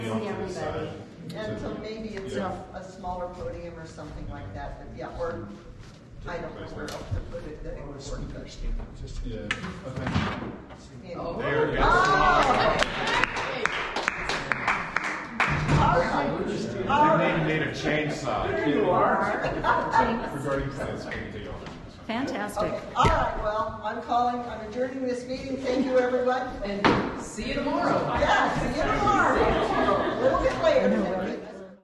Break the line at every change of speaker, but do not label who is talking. see
off to the
everybody.
side.
And so maybe it's
Yeah.
a, a smaller podium or something like that, but yeah, or, I don't know where else to put it that it would work best.
Yeah, okay.
Maybe-
There it is.
Oh,
They may need a chainsaw. There you are. Regarding plans, we can take off.
Fantastic.
okay, Oh! all right, well, I'm calling, I'm adjourning this meeting, thank you, everyone.
And see you tomorrow.
Yeah, see you tomorrow, a little bit later.